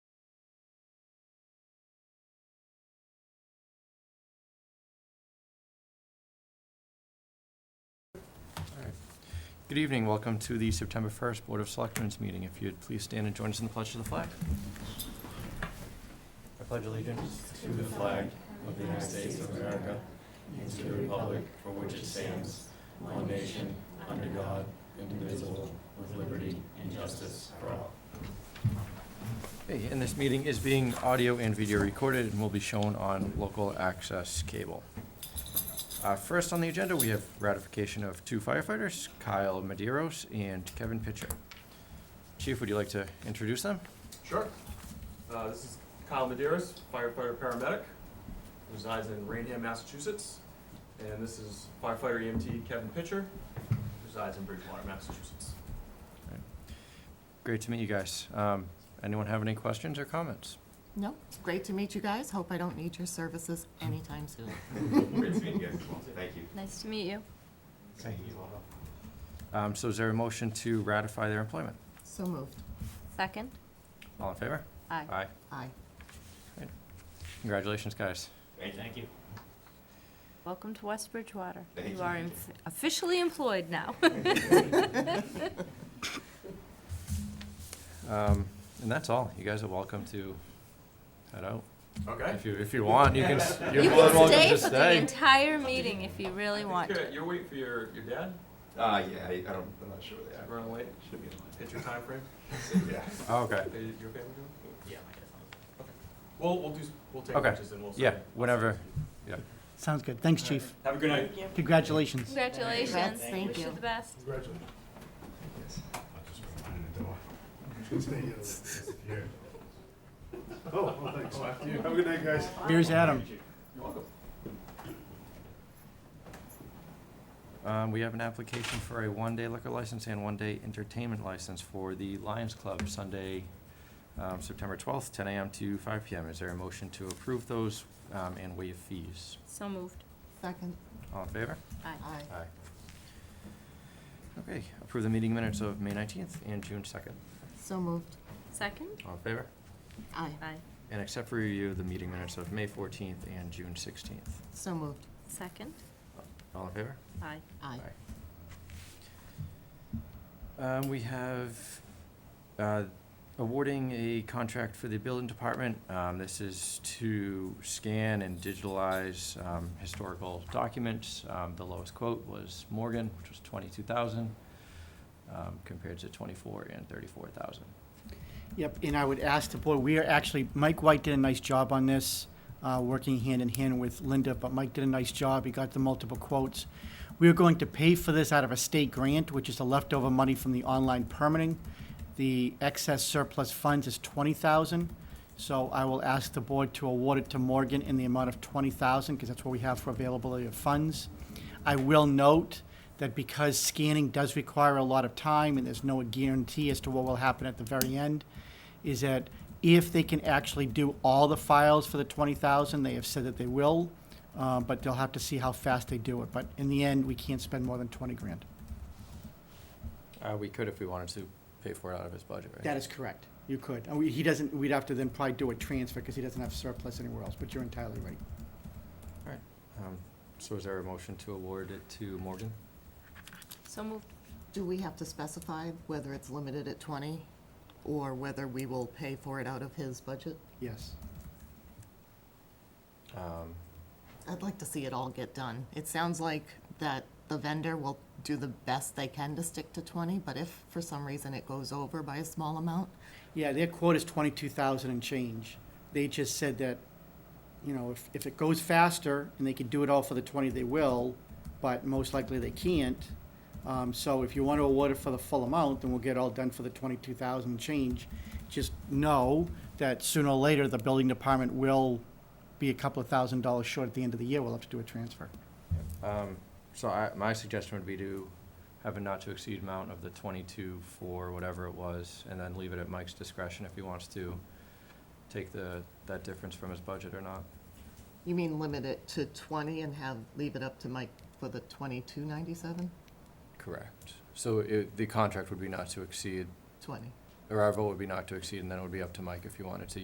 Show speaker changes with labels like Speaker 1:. Speaker 1: Good evening, welcome to the September 1st Board of Selectmen's meeting. If you'd please stand and join us in the pledge to the flag. I pledge allegiance to the flag of the United States of America and to the republic for which it stands, one nation, under God, indivisible, with liberty and justice for all. Okay, and this meeting is being audio and video recorded and will be shown on local access cable. Uh, First on the agenda, we have ratification of two firefighters, Kyle Maderos and Kevin Pitcher. Chief, would you like to introduce them?
Speaker 2: Sure. Uh, this is Kyle Medeiros, firefighter paramedic, resides in Rainham, Massachusetts. And this is firefighter EMT Kevin Pitcher, resides in Bridgewater, Massachusetts.
Speaker 1: Great to meet you guys. Um, Anyone have any questions or comments?
Speaker 3: No, it's great to meet you guys. Hope I don't need your services anytime soon.
Speaker 2: Great to meet you guys as well. Thank you.
Speaker 4: Nice to meet you.
Speaker 1: Thank Um, So is there a motion to ratify their employment?
Speaker 3: So moved.
Speaker 4: Second?
Speaker 1: All in favor?
Speaker 4: Aye.
Speaker 1: Aye.
Speaker 3: Aye.
Speaker 1: Congratulations, guys.
Speaker 2: Thank you.
Speaker 4: Welcome to West Bridgewater.
Speaker 2: Thank
Speaker 4: You
Speaker 2: you.
Speaker 4: are em- officially employed now.
Speaker 1: Um, And that's all. You guys are welcome to head out.
Speaker 2: Okay.
Speaker 1: If you, if you want, you can, s- you're
Speaker 4: You
Speaker 1: more than
Speaker 4: can
Speaker 1: welcome to
Speaker 4: stay for the
Speaker 1: stay.
Speaker 4: entire meeting if you really want
Speaker 2: You're-
Speaker 4: to.
Speaker 2: You're waiting for your, your dad
Speaker 5: Uh, yeah, I, I don't, I'm not sure where
Speaker 2: to
Speaker 5: they
Speaker 2: run away?
Speaker 5: Should be in line.
Speaker 2: Hit your time frame.
Speaker 5: Yeah.
Speaker 1: Oh, Okay.
Speaker 2: Are you you okay with doing? Yeah, my dad's on. Okay. Well, we'll do, s- we'll take
Speaker 1: Okay.
Speaker 2: pictures and we'll. send
Speaker 1: Yeah,
Speaker 2: it.
Speaker 1: whenever.
Speaker 6: Sounds good. Thanks, Chief.
Speaker 2: Have a good night.
Speaker 6: Congratulations.
Speaker 4: Congratulations.
Speaker 3: Thank
Speaker 4: Wish you
Speaker 3: you.
Speaker 4: the best.
Speaker 5: Yes.
Speaker 6: Here's Adam.
Speaker 2: You're welcome.
Speaker 1: Um, we have an application for a one-day liquor license and one-day entertainment license for the Lions Club, Sunday, um, September twelfth, ten AM to five PM. Is there a motion to approve those, um, and waive fees?
Speaker 4: So moved.
Speaker 3: Second.
Speaker 1: All in favor?
Speaker 4: Aye.
Speaker 3: Aye.
Speaker 1: Aye. Okay, approve the meeting minutes of May nineteenth and June second.
Speaker 3: So moved.
Speaker 4: Second?
Speaker 1: All in favor?
Speaker 3: Aye.
Speaker 4: Aye.
Speaker 1: And accept for review the meeting minutes of May fourteenth and June sixteenth.
Speaker 3: So moved.
Speaker 4: Second?
Speaker 1: All in favor?
Speaker 4: Aye.
Speaker 3: Aye.
Speaker 1: Um, we have, uh, awarding a contract for the building department. Um, this is to scan and digitalize, um, historical documents. Um, the lowest quote was Morgan, which was twenty-two thousand, um, compared to twenty-four and thirty-four thousand.
Speaker 6: Yep, and I would ask the board, we are actually, Mike White did a nice job on this, uh, working hand in hand with Linda, but Mike did a nice job. He got the multiple quotes. We are going to pay for this out of a state grant, which is the leftover money from the online permitting. The excess surplus funds is twenty thousand, so I will ask the board to award it to Morgan in the amount of twenty thousand, because that's what we have for availability of funds. I will note that because scanning does require a lot of time, and there's no guarantee as to what will happen at the very end, is that if they can actually do all the files for the twenty thousand, they have said that they will, uh, but they'll have to see how fast they do it. But in the end, we can't spend more than twenty grand.
Speaker 1: Uh, we could if we wanted to pay for it out of his budget, right?
Speaker 6: That is correct. You could. And we- He doesn't, we'd have to then probably do a transfer because he doesn't have surplus anywhere else, but you're entirely right.
Speaker 1: Um, so is there a motion to award it to Morgan?
Speaker 4: So moved.
Speaker 3: Do we have to specify whether it's limited at 20 or whether we will pay for it out of his budget?
Speaker 6: Yes.
Speaker 1: Um,
Speaker 3: I'd like to see it all get done. It sounds like that the vendor will do the best they can to stick to 20, but if for some reason it goes over by a small amount,
Speaker 6: Yeah, their quote is twenty-two thousand and change. They just said that, you know, if, if it goes faster and they can do it all for the twenty, they will, but most likely they can't. Um, so if you want to award it for the full amount, then we'll get it all done for the twenty-two thousand and change. Just know that sooner or later, the building department will be a couple of thousand dollars short at the end of the year. We'll have to do a transfer.
Speaker 1: Um, so I, my suggestion would be to have a not to exceed amount of the twenty-two for whatever it was, and then leave it at Mike's discretion if he wants to take the, that difference from his budget or not.
Speaker 3: you mean limit it to 20 and have, leave it up to Mike for the 2297?
Speaker 1: Correct. So it, the contract would be not to exceed,
Speaker 3: 20.
Speaker 1: or our vote would be not to exceed, and then it would be up to Mike if he wanted to